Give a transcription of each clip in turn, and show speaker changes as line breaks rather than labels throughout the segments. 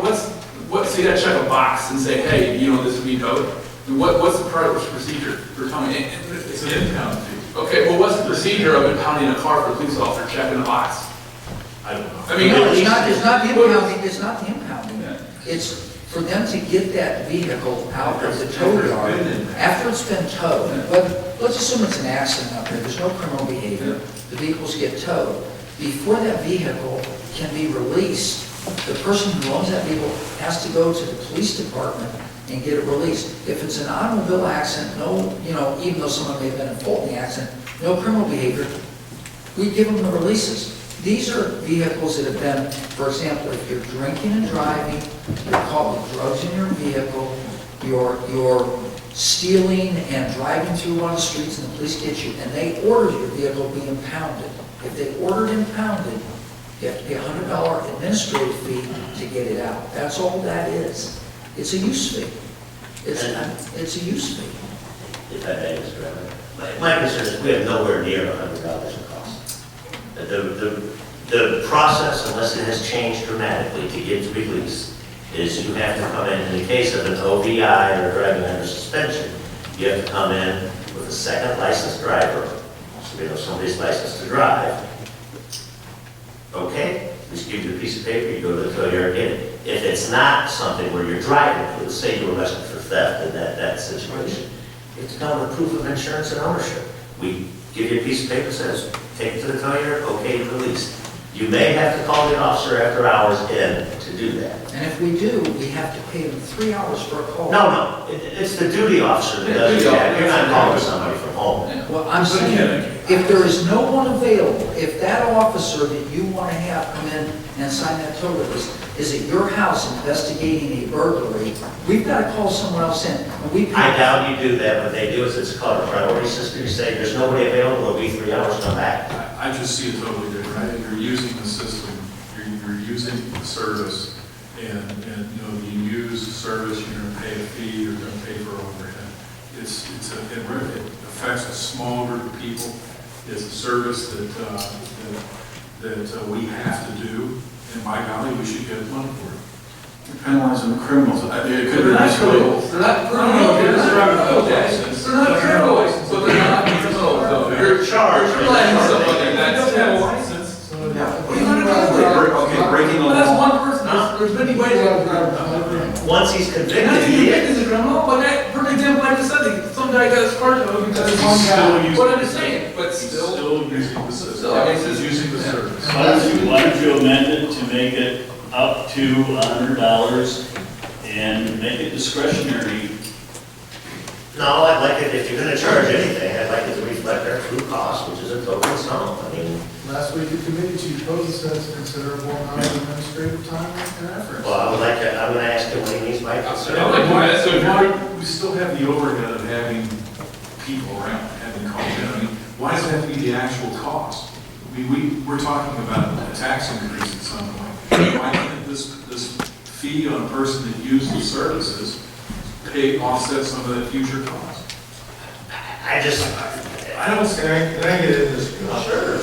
what's, what, so you gotta check a box and say, hey, you know, this would be dope. And what, what's the pro- procedure for counting? It's an impound Okay, well, what's the procedure of impounding a car for a police officer checking a box?
I don't know.
I mean,
No, it's not, it's not the impounding, it's not the impounding. It's for them to get that vehicle out of the tow yard after it's been towed. But let's assume it's an accident out there, there's no criminal behavior, the vehicles get towed. Before that vehicle can be released, the person who owns that vehicle has to go to the police department and get it released. If it's an automobile accident, no, you know, even though someone may have been involved in the accident, no criminal behavior, we give them the releases. These are vehicles that have been, for example, if you're drinking and driving, you're caught with drugs in your vehicle, you're, you're stealing and driving through one of the streets and the police get you, and they order your vehicle be impounded. If they order it impounded, you have to pay a hundred dollar administrative fee to get it out. That's all that is. It's a use fee. It's, a- it's a use fee.
If I may, Mr. Remmer, my- my concern is we have nowhere near hundred dollars in cost. The, the, the process, unless it has changed dramatically to get released, is you have to come in, in the case of an OVI or driving under suspension, you have to come in with a second licensed driver, so we know somebody's licensed to drive. Okay, we just give you a piece of paper, you go to the tow yard, get it. If it's not something where you're driving, let's say you were arrested for theft in that, that situation, you have to come with proof of insurance and ownership. We give you a piece of paper that says, take it to the tow yard, okay, release. You may have to call the officer after hours in to do that.
And if we do, we have to pay them three hours for a call.
No, no, it, it's the duty officer that does
Yeah, duty
that. You're not
officer.
calling somebody from home.
Well, I'm saying, if there is no one available, if that officer that you want to have come in and sign that tow release is at your house investigating a burglary, we've got to call someone else in. And we
I
pay,
doubt you do that. What they do is it's called a priority system. You say, there's nobody available, it'll be three hours, come back.
I I just see it totally different. I think You're using the system, you're, you're using the service, and, and, you know, you use the service, you're gonna pay a fee, you're gonna pay for overhead. It's, it's, a- it re- it affects a small group of people. It's a service that, uh, that, that uh, we have to do, and by golly, we should get money for it. You're Penalizing the criminals. I think it
They're
could be
not
nice way.
criminals, they're not criminals, they're not criminals. They're not criminals, so they're not criminals, though. You're charged, you're letting somebody, that's.
Okay, breaking the
But that's
law.
one person, There's- there's many ways.
Once he's
And
convicted,
that's
he
the
is.
is a criminal, but that, for example, I just said, that some guy got his car towed because of
He's
one
still
guy.
using-
What I'm saying, but
He's
still,
Still using the system.
Still, I mean, it's
He's
just-
using the service.
Why don't you, why don't you amend it to make it up to hundred dollars and make it discretionary?
No, I'd like it, if you're gonna charge anything, I'd like it to reflect our true cost, which is a total sum. I mean,
Last week, the committee chief posed says considerable amount of administrative time and effort.
well, I would like to, I'm gonna ask him what he means by concern.
I'm like, why- so
Why- We still have the overhead of having people around, having called in, I mean, why does it have to be the actual cost? We, we, we're talking about a tax increase at some point. Why can't this, this fee on a person that uses the services pay, offset some of that future cost?
I just,
I don't see.
Can I, can I get in this?
sure,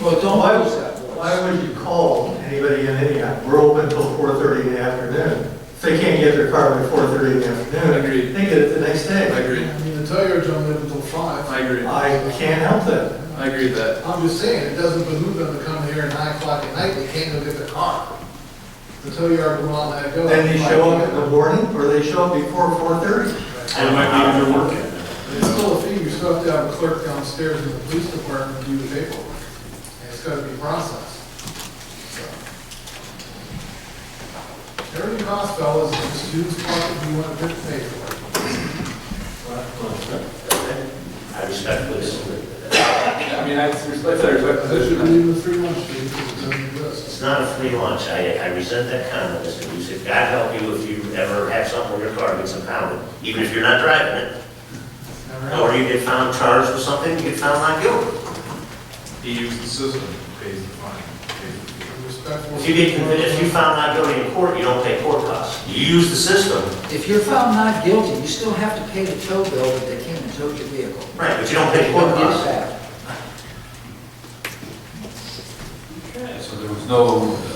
well, don't
Why
lose
was
that voice.
Why would you call anybody in any, hour? we're open till four thirty in the afternoon. If they can't get their car by four thirty in the afternoon,
Agreed.
they get it the next
I
day.
agree,
I mean, the tow yard's only open until five.
I agree,
I can't help them.
I agree with that.
I'm just saying, it doesn't behoove them to come here at nine o'clock at night, they can't go get their car. The tow yard will not let it go.
Then they show up in the morning, or they show up before four thirty.
They might be underworking.
It's still a fee, you still have to have a clerk downstairs in the police department do the paperwork. And it's gotta be processed. So. Everything costs, fellas, in the student's pocket, you want to pay for it.
I respectfully disagree.
I mean, I respect, I respect the
I should
position.
leave the three months, Steve, because it doesn't exist.
It's not a free lunch, I, I resent that comment, Mr. Busick. God help you if you ever have something where your car gets impounded, even if you're not driving it. Or you get found charged with something, you get found not guilty.
He uses the system, pays the fine, pays the fee.
Respectful.
If you get, convi- if you found not guilty in court, you don't pay court costs. You use the system,
If you're found not guilty, you still have to pay the tow bill that they came and towed your vehicle.
right, but you don't pay
You
court
don't get
costs.
it back.
So there was no